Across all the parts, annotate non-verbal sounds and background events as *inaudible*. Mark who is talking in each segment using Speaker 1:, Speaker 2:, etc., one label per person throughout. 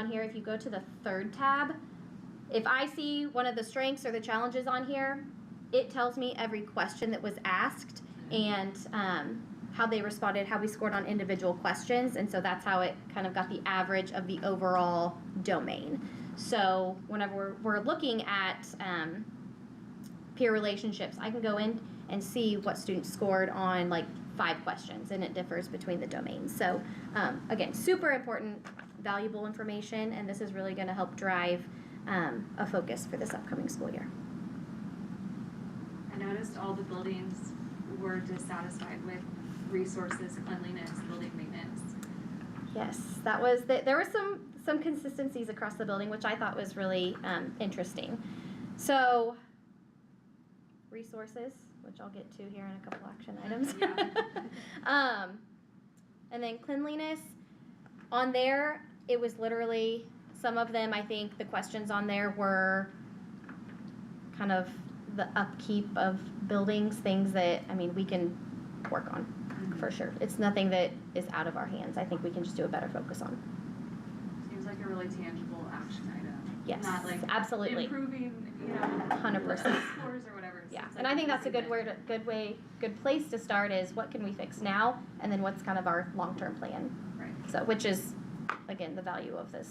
Speaker 1: on here, if you go to the third tab, if I see one of the strengths or the challenges on here, it tells me every question that was asked and um, how they responded, how we scored on individual questions. And so that's how it kind of got the average of the overall domain. So whenever we're, we're looking at um, peer relationships, I can go in and see what students scored on like five questions, and it differs between the domains. So um, again, super important, valuable information, and this is really going to help drive um, a focus for this upcoming school year.
Speaker 2: I noticed all the buildings were dissatisfied with resources, cleanliness, building maintenance.
Speaker 1: Yes, that was the, there were some some consistencies across the building, which I thought was really um, interesting. So resources, which I'll get to here in a couple action items.
Speaker 2: Yeah.
Speaker 1: *laughs* um, and then cleanliness on there, it was literally some of them. I think the questions on there were kind of the upkeep of buildings, things that I mean we can work on for sure. It's nothing that is out of our hands. I think we can just do a better focus on.
Speaker 2: Seems like a really tangible action item.
Speaker 1: Yes,
Speaker 2: Not like
Speaker 1: absolutely.
Speaker 2: improving, you know.
Speaker 1: 100%.
Speaker 2: Scores or whatever. It
Speaker 1: Yeah,
Speaker 2: seems
Speaker 1: and
Speaker 2: like
Speaker 1: I think that's a good
Speaker 2: improvement.
Speaker 1: word, good way, good place to start is what can we fix now, and then what's kind of our long-term plan.
Speaker 2: Right.
Speaker 1: So, which is, again, the value of this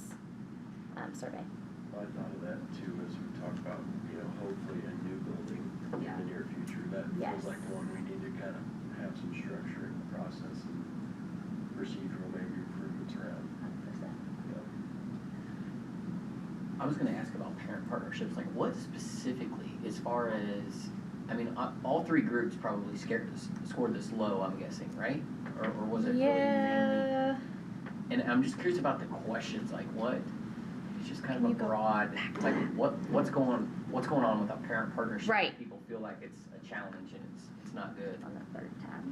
Speaker 1: um, survey.
Speaker 3: I thought of that too, as we talk about, you know, hopefully a new building in
Speaker 2: Yeah.
Speaker 3: the near future, that
Speaker 1: Yes.
Speaker 3: feels like one we need to kind of have some structure in the process and procedural maybe improvements around, you know.
Speaker 4: I was gonna ask about parent partnerships, like what specifically, as far as, I mean, uh, all three groups probably scared this, scored this low, I'm guessing, right? Or, or was it really mainly?
Speaker 1: Yeah,
Speaker 4: And I'm just curious about the questions, like what, it's just kind of
Speaker 1: Can
Speaker 4: a
Speaker 1: you go
Speaker 4: broad, like what, what's going, what's going on with a parent partnership? that
Speaker 1: Right.
Speaker 4: People feel like it's a challenge and it's, it's not good.
Speaker 1: on the third tab.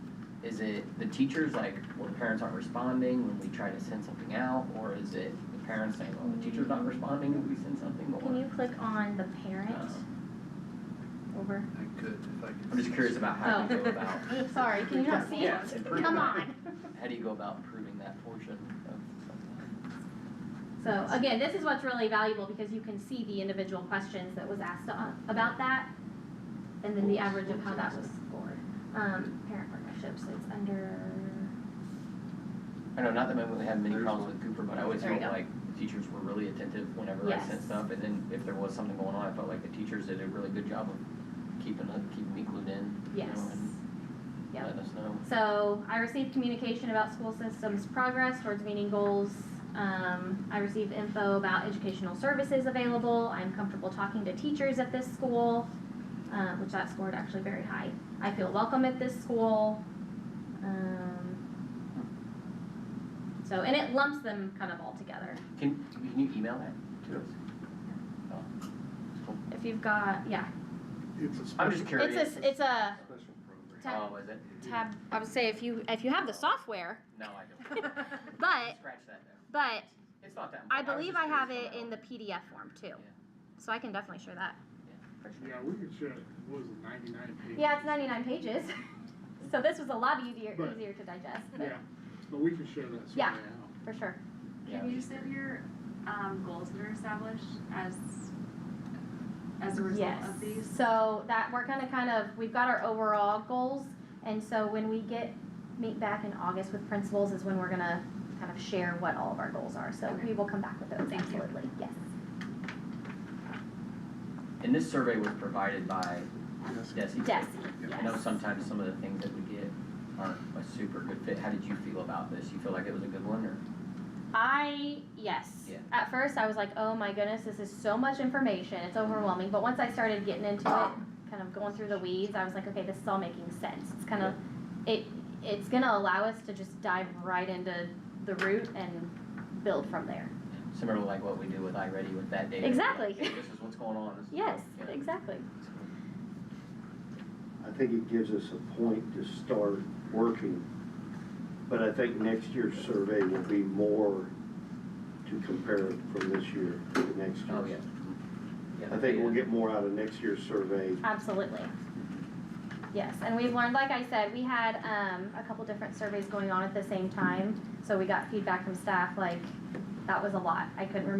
Speaker 4: Is it the teachers, like when parents aren't responding, when we try to send something out? Or is it the parents saying, oh, the teacher's not responding, when we send something? Um, Or-
Speaker 1: Can you click on the parent
Speaker 4: Uh,
Speaker 1: over?
Speaker 5: I could, if I could.
Speaker 4: I'm just curious about how you
Speaker 1: Oh.
Speaker 4: go about,
Speaker 1: Sorry, can you not see it?
Speaker 4: Yeah, it's improving.
Speaker 1: Come on.
Speaker 4: how do you go about improving that portion of?
Speaker 1: So again, this is what's really valuable because you can see the individual questions that was asked a- about that, and then the average of how that was scored. Um, parent partnerships, it's under,
Speaker 4: I know, not that I really have many
Speaker 5: There's
Speaker 4: problems with Cooper, but I always
Speaker 1: There you
Speaker 4: felt
Speaker 1: go.
Speaker 4: like teachers were really attentive whenever I sent
Speaker 1: Yes.
Speaker 4: stuff. And then if there was something going on, I felt like the teachers did a really good job of keeping, up- keeping me glued in, you know,
Speaker 1: yes.
Speaker 4: and
Speaker 1: Yep.
Speaker 4: letting us know.
Speaker 1: So I received communication about school systems progress towards meeting goals. Um, I received info about educational services available. I'm comfortable talking to teachers at this school, uh, which that scored actually very high. I feel welcome at this school. Um, so, and it lumps them kind of all together.
Speaker 4: Can, can you email that to us? Oh, cool.
Speaker 1: If you've got, yeah,
Speaker 5: It's a special.
Speaker 4: I'm just curious.
Speaker 1: it's a, it's a
Speaker 5: Special
Speaker 1: tab,
Speaker 5: program.
Speaker 4: Oh, is it?
Speaker 1: tab. I would say if you, if you have the software,
Speaker 4: No, I don't.
Speaker 1: *laughs* but,
Speaker 4: Scratch that though.
Speaker 1: but
Speaker 4: It's not that much.
Speaker 1: I
Speaker 4: was
Speaker 1: believe
Speaker 4: just
Speaker 1: I have
Speaker 4: curious
Speaker 1: it
Speaker 4: about-
Speaker 1: in the PDF form too.
Speaker 4: Yeah.
Speaker 1: So I can definitely share that. For sure.
Speaker 5: Yeah, we could share, what was it, ninety-nine pages?
Speaker 1: Yeah, it's ninety-nine pages. *laughs* So this was a lot easier,
Speaker 5: Right.
Speaker 1: easier to digest, but
Speaker 5: Yeah, but we could share that survey
Speaker 1: Yeah.
Speaker 5: out.
Speaker 1: for sure.
Speaker 4: Yeah,
Speaker 2: Can
Speaker 4: it
Speaker 2: you
Speaker 4: was
Speaker 2: send your, um, goals that are established as, as a result of these?
Speaker 1: So that, we're gonna kind of, we've got our overall goals, and so when we get, meet back in August with principals is when we're gonna kind of share what all of our goals are, so
Speaker 2: Okay.
Speaker 1: we will come back with those,
Speaker 2: Thank you.
Speaker 1: absolutely, yes.
Speaker 4: And this survey was provided by
Speaker 5: Yes.
Speaker 4: Desi.
Speaker 1: Desi,
Speaker 4: I know
Speaker 1: yes.
Speaker 4: sometimes some of the things that we get aren't a super good fit. How did you feel about this? You feel like it was a good one or?
Speaker 1: I, yes.
Speaker 4: Yeah.
Speaker 1: At first, I was like, oh my goodness, this is so much information. It's overwhelming. But once I started getting into it, kind of going through the weeds, I was like, okay, this is all making sense. It's kind of, it, it's going to allow us to just dive right into the root and build from there.
Speaker 4: Similar to like what we do with iReady with that data.
Speaker 1: Exactly.
Speaker 4: Like, hey, This is what's going on. This is
Speaker 1: Yes,
Speaker 4: what- yeah.
Speaker 1: exactly.
Speaker 6: I think it gives us a point to start working, but I think next year's survey will be more to compare from this year to the next year.
Speaker 4: Oh, yeah. Yeah,
Speaker 6: I think we'll
Speaker 4: yeah.
Speaker 6: get more out of next year's survey.
Speaker 1: Absolutely. Yes, and we've learned, like I said, we had um, a couple different surveys going on at the same time. So we got feedback from staff like, that was a lot. I couldn't remember